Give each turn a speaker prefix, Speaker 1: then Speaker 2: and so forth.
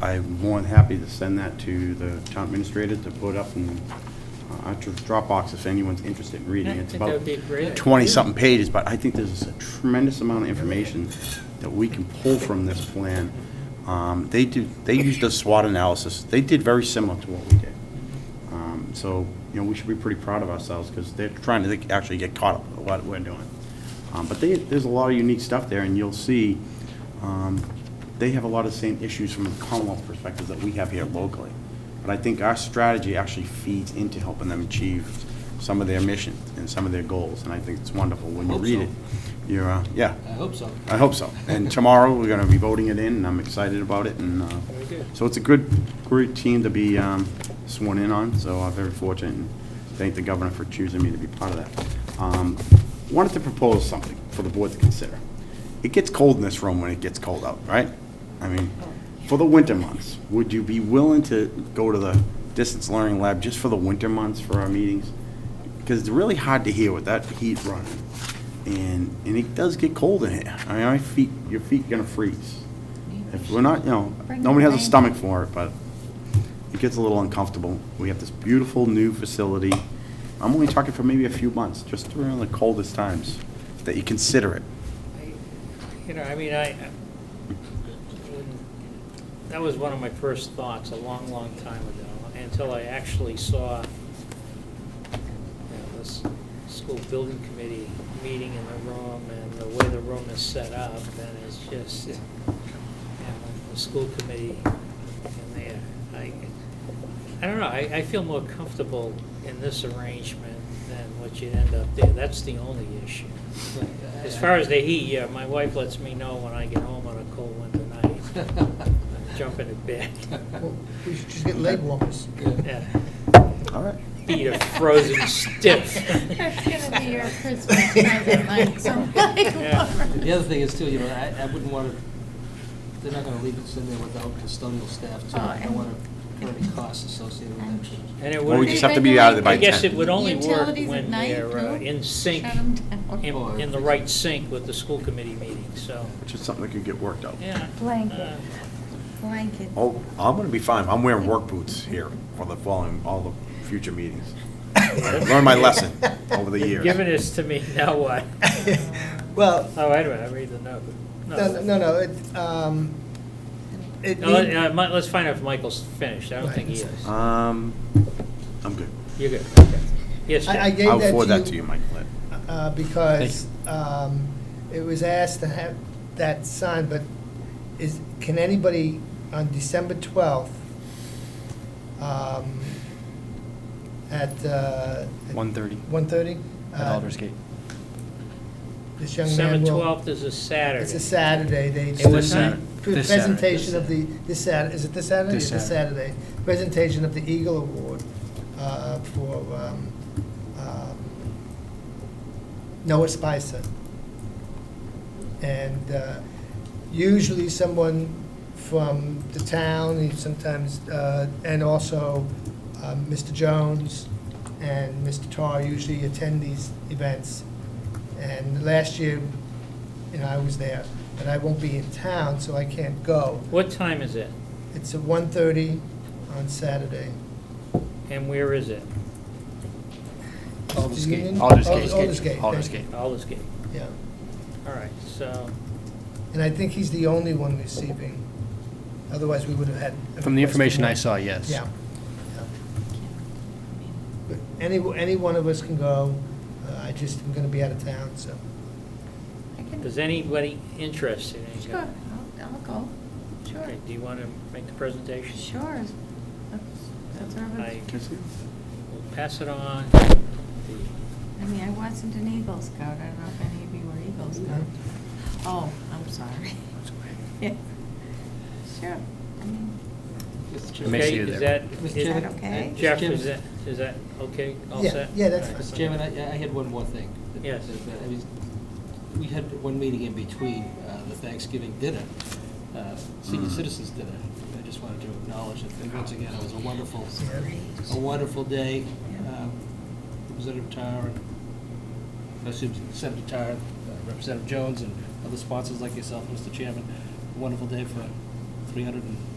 Speaker 1: I'm more than happy to send that to the town administrator to put up in uh, our Dropbox if anyone's interested in reading.
Speaker 2: Yeah, I
Speaker 1: It's
Speaker 2: think that
Speaker 1: about
Speaker 2: would be a great idea.
Speaker 1: 20-something pages, but I think there's a tremendous amount of information that we can pull from this plan. Um, They do, they used a SWOT analysis. They did very similar to what we did. Um, So, you know, we should be pretty proud of ourselves because they're trying to like, actually get caught up with what we're doing. Um, But they, there's a lot of unique stuff there, and you'll see, um, they have a lot of the same issues from a Commonwealth perspective that we have here locally. But I think our strategy actually feeds into helping them achieve some of their mission and some of their goals, and I think it's wonderful when you
Speaker 2: Hope
Speaker 1: read
Speaker 2: so.
Speaker 1: it. You're, uh, yeah,
Speaker 2: I hope so.
Speaker 1: I hope so. And tomorrow, we're gonna be voting it in, and I'm excited about it, and, uh,
Speaker 2: Very good.
Speaker 1: so it's a good, great team to be um, sworn in on, so I'm very fortunate, and thank the governor for choosing me to be part of that. Um, Wanted to propose something for the board to consider. It gets cold in this room when it gets cold out, right? I mean, for the winter months, would you be willing to go to the distance learning lab just for the winter months for our meetings? Because it's really hard to hear with that heat running, and, and it does get cold in here. I mean, my feet, your feet gonna freeze. If we're not, you know,
Speaker 3: Bring
Speaker 1: nobody
Speaker 3: the
Speaker 1: has a
Speaker 3: rain.
Speaker 1: stomach for it, but it gets a little uncomfortable. We have this beautiful new facility. I'm only talking for maybe a few months, just around the coldest times, that you consider it.
Speaker 2: You know, I mean, I, I- when- that was one of my first thoughts a long, long time ago, until I actually saw you know, this school building committee meeting in the room and the way the room is set up, and it's just, you know, the school committee in there. I, I don't know, I, I feel more comfortable in this arrangement than what you'd end up there. That's the only issue. As far as the heat, yeah, my wife lets me know when I get home on a cold winter night. I Jump into bed,
Speaker 4: Well, We should just get leg warmers.
Speaker 2: yeah,
Speaker 1: All right.
Speaker 2: feet are frozen stiff.
Speaker 3: That's gonna be your Christmas present, like some like
Speaker 2: Yeah.
Speaker 3: warmers.
Speaker 5: The other thing is too, you know, I, I wouldn't want to, they're not going to leave us in there without custodial staff too.
Speaker 3: Oh,
Speaker 5: I don't
Speaker 3: and-
Speaker 5: want to put any costs associated with that.
Speaker 2: And it
Speaker 1: Well, we
Speaker 2: would,
Speaker 1: just have to be out of there by
Speaker 2: I
Speaker 1: ten.
Speaker 2: guess it would only work
Speaker 3: Utilities at
Speaker 2: when
Speaker 3: night,
Speaker 2: they're uh,
Speaker 3: no?
Speaker 2: in sync,
Speaker 3: Shut 'em down.
Speaker 2: in, in the right sync with the school committee meeting, so,
Speaker 1: Which is something that could get worked out.
Speaker 2: yeah.
Speaker 3: Blanket,
Speaker 2: uh,
Speaker 3: blanket.
Speaker 1: Oh, I'm gonna be fine. I'm wearing work boots here for the following, all the future meetings. I Learned my lesson over the years.
Speaker 2: Giving this to me, now what?
Speaker 4: Well,
Speaker 2: Oh, wait a minute, I read the note.
Speaker 4: no, no, no, it, um, it
Speaker 2: No, let-
Speaker 4: need-
Speaker 2: uh, Mi- Let's find out if Michael's finished, I don't think he is.
Speaker 1: Um, I'm good.
Speaker 2: You're good, okay. Yes,
Speaker 4: I I
Speaker 2: Jack.
Speaker 4: gave
Speaker 1: I'll forward that to you,
Speaker 4: you
Speaker 1: Mike.
Speaker 4: uh, because um, it was asked to have that signed, but is, can anybody on December 12th um, at? uh,
Speaker 6: 1:30.
Speaker 4: 1:30?
Speaker 6: at
Speaker 4: Uh,
Speaker 6: Aldersgate.
Speaker 4: This young man
Speaker 2: December
Speaker 4: will.
Speaker 2: twelfth is a Saturday.
Speaker 4: It's a Saturday, they.
Speaker 2: It was Saturday.
Speaker 4: Pre-
Speaker 6: This Saturday.
Speaker 4: Presentation of the, this Sat, is it this Saturday?
Speaker 6: This
Speaker 4: Yeah, Saturday. Presentation of the Eagle Award uh, for um, um, Noah Spicer. And uh, usually someone from the town, and sometimes, uh, and also um, Mr. Jones and Mr. Tar usually attend these events. And last year, you know, I was there, but I won't be in town, so I can't go.
Speaker 2: What time is it?
Speaker 4: It's at 1:30 on Saturday.
Speaker 2: And where is it?
Speaker 4: Union?
Speaker 6: Aldersgate.
Speaker 4: Alders- Aldersgate,
Speaker 6: Aldersgate.
Speaker 4: thank you.
Speaker 6: Aldersgate.
Speaker 2: Aldersgate,
Speaker 4: Yeah.
Speaker 2: all right, so,
Speaker 4: And I think he's the only one receiving. Otherwise, we would have had. a
Speaker 6: From the
Speaker 4: request
Speaker 6: information
Speaker 4: more.
Speaker 6: I saw, yes.
Speaker 4: Yeah. Yeah. But Any, any one of us can go. Uh, I just am going to be out of town, so.
Speaker 3: I can-
Speaker 2: is anybody interested in
Speaker 3: Sure,
Speaker 2: going?
Speaker 3: I'll, I'll go, sure,
Speaker 2: Okay, Do you want to make the presentation?
Speaker 3: sure. That's- That's all
Speaker 2: I
Speaker 3: right.
Speaker 2: will pass it on. The-
Speaker 3: I mean, I wasn't an Eagle Scout, I don't know if any of you were Eagle Scouts. Oh, I'm sorry. Yeah. Sure, I mean,
Speaker 6: I may see
Speaker 2: Okay,
Speaker 6: you
Speaker 2: is
Speaker 6: there.
Speaker 2: that,
Speaker 5: Mr.
Speaker 2: is-
Speaker 3: is that
Speaker 5: Chairman,
Speaker 3: okay?
Speaker 5: Mr.
Speaker 2: Jeff,
Speaker 5: Chairman.
Speaker 2: is that, is that okay, all
Speaker 4: Yeah,
Speaker 2: set?
Speaker 4: yeah, that's
Speaker 2: All right.
Speaker 5: Mr. Chairman, I, I had one more thing. that-
Speaker 2: Yes.
Speaker 5: that- that- I mean, We had one meeting in between uh, the Thanksgiving dinner, uh, senior
Speaker 2: Mm.
Speaker 5: citizens dinner. I just wanted to acknowledge it, and once again, it was a wonderful, a wonderful day. Um, Representative Tarr, and- I assume Senator Tarr, uh, Representative Jones, and other sponsors like yourself, Mr. Chairman. Wonderful day for 300 and